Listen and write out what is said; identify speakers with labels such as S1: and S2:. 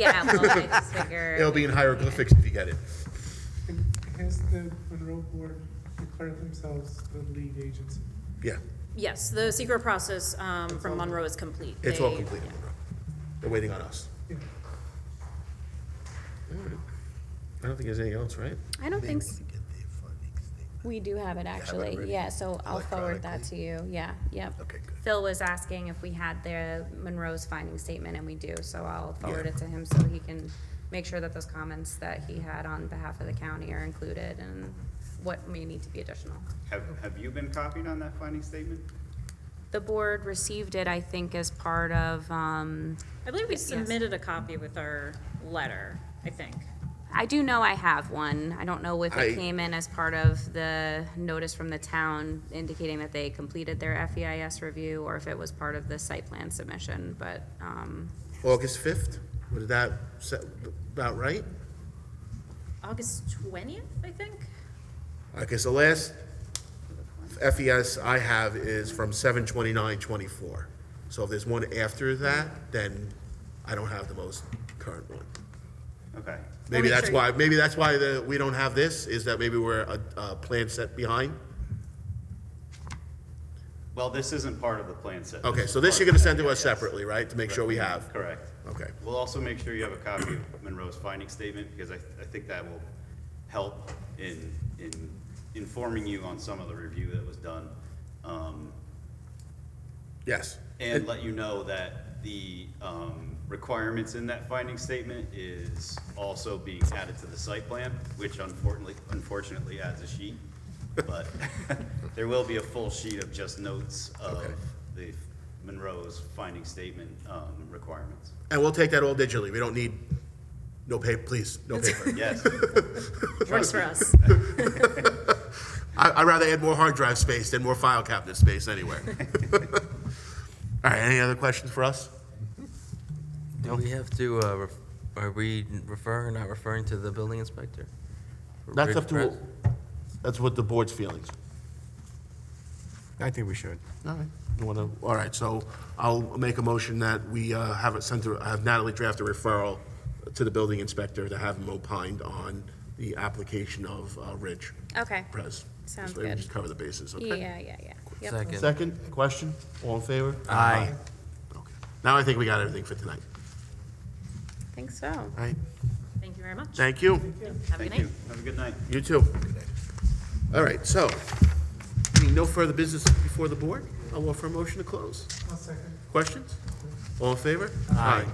S1: Yeah, well, I just figure.
S2: It'll be in hieroglyphics if you get it.
S3: And has the Monroe Board declared themselves the lead agency?
S2: Yeah,
S1: Yes, the secret process um, from Monroe is complete.
S2: it's all
S1: They-
S2: completed.
S1: yeah.
S2: Monroe. They're waiting on us.
S3: Yeah.
S2: I don't think there's anything else, right?
S4: I don't think, s-
S5: Maybe we can get the funding statement.
S4: we do have it
S5: already?
S4: actually, yeah, so I'll forward that to you, yeah, yep.
S5: Okay, good.
S4: Phil was asking if we had the Monroe's finding statement, and we do, so I'll forward
S2: Yeah.
S4: it to him so he can make sure that those comments that he had on behalf of the county are included and what may need to be additional.
S6: Have, have you been copied on that finding statement?
S4: The board received it, I think, as part of, um,
S1: I believe we submitted a copy with our letter, I think.
S4: I do know I have one. I don't know if
S2: I-
S4: it came in as part of the notice from the town indicating that they completed their FEIS review or if it was part of the site plan submission, but, um,
S2: August fifth, was that se- about right?
S1: August 20th, I think?
S2: Okay, so last FES I have is from seven twenty-nine twenty-four. So if there's one after that, then I don't have the most current one.
S6: Okay.
S2: Maybe
S1: make
S2: that's
S1: sure-
S2: why, maybe that's why the, we don't have this, is that maybe we're a, a plan set behind?
S6: Well, this isn't part of the plan set.
S2: Okay,
S6: is
S2: so this
S6: part
S2: you're
S6: of
S2: gonna
S6: the
S2: send to us
S6: FEIS.
S2: separately, right, to make sure we have?
S6: Correct.
S2: Okay.
S6: We'll also make sure you have a copy of Monroe's finding statement, because I, I think that will help in, in informing you on some of the review that was done. Um,
S2: Yes.
S6: and let you know that the, um, requirements in that finding statement is also being added to the site plan, which unfortunately, unfortunately adds a sheet. But there will be a full sheet of just notes of
S2: Okay.
S6: the Monroe's finding statement, um, requirements.
S2: And we'll take that all digitally. We don't need, no paper, please, no paper.
S6: Yes,
S1: Works for us.
S2: I, I'd rather add more hard drive space than more file cabinet space anywhere. All right, any other questions for us?
S7: Do we have to, uh, ref- are we referring, not referring to the building inspector? For
S2: That's
S7: Ridge
S2: up to,
S7: Crest?
S2: that's what the board's feelings.
S8: I think we should.
S2: All right. You wanna, all right, so I'll make a motion that we, uh, have it sent to, have Natalie draft a referral to the building inspector to have him opined on the application of, uh, Ridge
S4: okay.
S2: Press. This
S4: Sounds
S2: way we
S4: good.
S2: Just cover the bases, okay?
S4: Yeah, yeah, yeah. Yep.
S7: Second.
S2: Second, question, all in favor? Aye. Okay. Now I think we got everything for tonight,
S4: Think so.
S2: all right?
S1: Thank you very much.
S2: Thank you,
S1: Have a good
S6: thank you.
S1: night.
S6: Have a good night.
S2: you too. All right, so, being no further business before the board, I'll offer a motion to close.
S3: One second.
S2: Questions? All in favor? Aye.